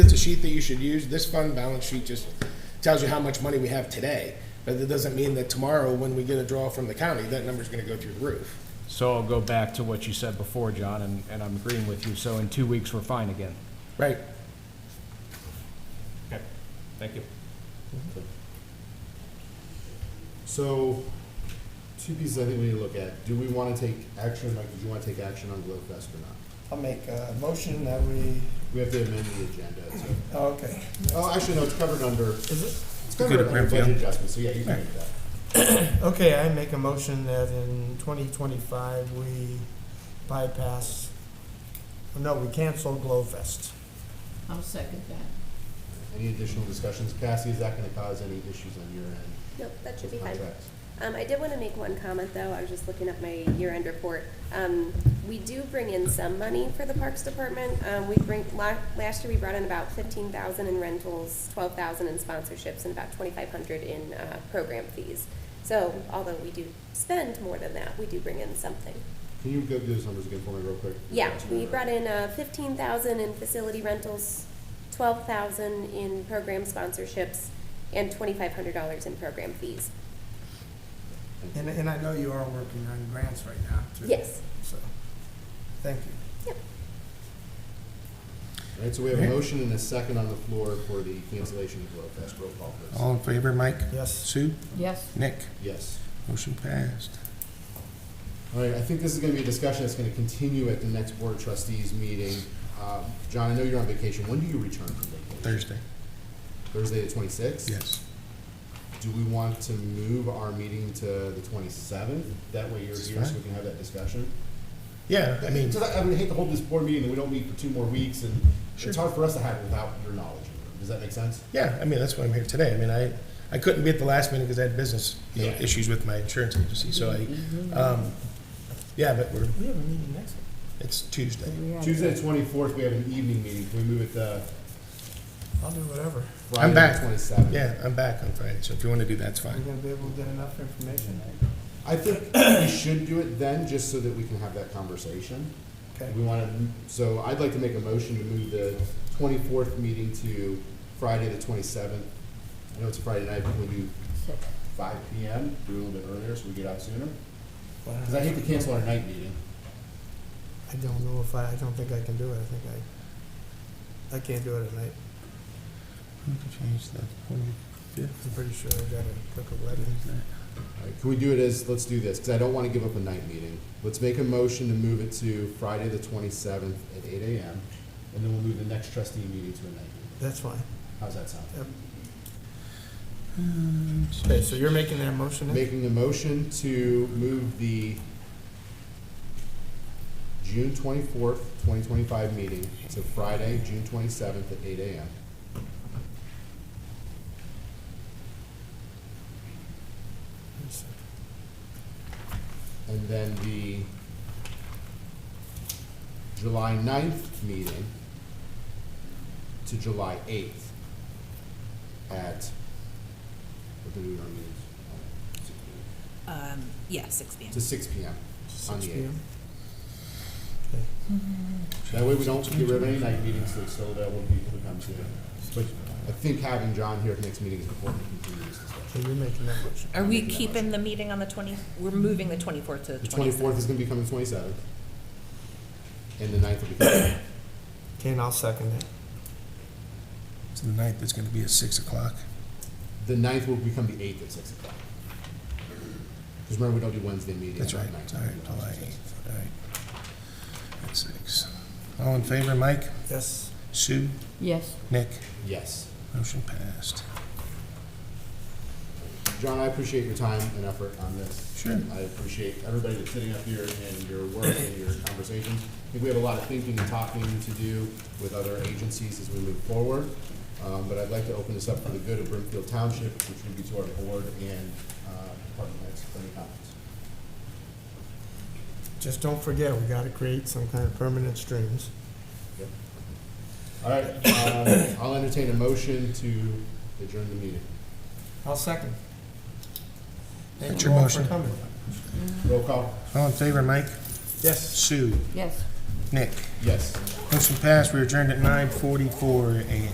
it's a sheet that you should use. This fund balance sheet just tells you how much money we have today. But that doesn't mean that tomorrow, when we get a draw from the county, that number's gonna go through the roof. So I'll go back to what you said before, John, and, and I'm agreeing with you. So in two weeks, we're fine again. Right. Okay, thank you. So, two pieces I think we need to look at. Do we want to take action, Mike, did you want to take action on Glowfest or not? I'll make a motion that we, We have to amend the agenda, so. oh, okay. Oh, actually, no, it's covered under, Is it? it's covered under budget adjustments, so yeah, you can do that. Okay, I make a motion that in twenty twenty-five, we bypass, no, we cancel Glowfest. I'll second that. Any additional discussions? Cassie, is that going to cause any issues on your end Nope, that should be with fine. contracts? Um, I did want to make one comment, though. I was just looking at my year-end report. Um, we do bring in some money for the Parks Department. Um, we bring, la- last year we brought in about fifteen thousand in rentals, twelve thousand in sponsorships, and about twenty-five hundred in, uh, program fees. So although we do spend more than that, we do bring in something. Can you go through those numbers again for me real quick? Yeah, we brought in, uh, fifteen thousand in facility rentals, twelve thousand in program sponsorships, and twenty-five hundred dollars in program fees. And, and I know you are working on grants right now, too. Yes. So, thank you. All right, so we have a motion and a second on the floor for the cancellation of Glowfest. Roll call, please. All in favor, Mike? Yes, Sue? Yes, Nick? Yes. Motion passed. All right, I think this is gonna be a discussion that's gonna continue at the next Board of Trustees meeting. Um, John, I know you're on vacation. When do you return from vacation? Thursday, Thursday the twenty-sixth? yes. Do we want to move our meeting to the twenty-seventh? That way you're That's here so fine. we can have that discussion. Yeah, I mean, Because I I would hate to hold this board meeting and we don't meet for two more weeks and Sure. it's hard for us to have it without your knowledge. Does that make sense? yeah, I mean, that's why I'm here today. I mean, I, I couldn't be at the last meeting because I had business, you know, Yeah. issues with my insurance agency, so Mm-hmm. I, um, yeah, but we're, we have a meeting next week. it's Tuesday. we have. Tuesday the twenty-fourth, we have an evening meeting. Can we move it to I'll do whatever. Friday the back. twenty-seventh? Yeah, I'm back on Friday, so if you want to do that, it's Are we fine. gonna be able to get enough information? I think we should do it then, just so that we can have that conversation. Okay, We want to, so I'd like to make a motion to move the twenty-fourth meeting to Friday, the twenty-seventh. I know it's a Friday night, but we'll do five P M, do it a little bit earlier so we get out sooner. Well, Because I hate to cancel our night meeting. I don't know if I, I don't think I can do it, I think I, I can't do it at night, Change the I'm pretty sure I gotta cook a wedding. All right, Can we do it as, let's do this, because I don't want to give up a night meeting. Let's make a motion to move it to Friday, the twenty-seventh at eight A M. And then we'll move the next trustee meeting to a night meeting. That's fine. How's that sound? Okay, so you're making that motion then? Making a motion to move the June twenty-fourth, twenty twenty-five meeting to Friday, June twenty-seventh at eight AM. And then the July 9th meeting to July eighth at, what do we normally use? Um, yeah, six PM. To six P M on Six the P eighth. M? That way we don't get rid of any night meetings that's still available to people who come to. But I think having John here at the next meeting is important to continue this So discussion. you're making that motion? Are we keeping the meeting on the twenty, we're moving the twenty-fourth to the The twenty-seventh? twenty-fourth is gonna become the twenty-seventh. And the 9th will become, Okay, and I'll second it. So the ninth is going to be at six o'clock. the 9th will become the eighth at six o'clock. Because remember, we don't do Wednesday meetings. That's on right, the 9th. sorry, July eighth, all right. At six. All in favor, Mike? Yes. Sue? Yes, Nick? Yes. Motion passed. John, I appreciate your time and effort on this. Sure. I appreciate everybody that's sitting up here and your work and your conversations. I think we have a lot of thinking and talking to do with other agencies as we move forward. Um, but I'd like to open this up for the good of Brimfield Township, which would be to our board and, uh, department heads for any comments. Just don't forget, we gotta create some kind of permanent streams. All right, um, I'll entertain a motion to adjourn the meeting. I'll second. Thank That's you your all for motion. coming. Roll call? All in favor, Mike? Yes. Sue? yes. Nick? Yes. Motion passed, we adjourned at nine forty-four AM.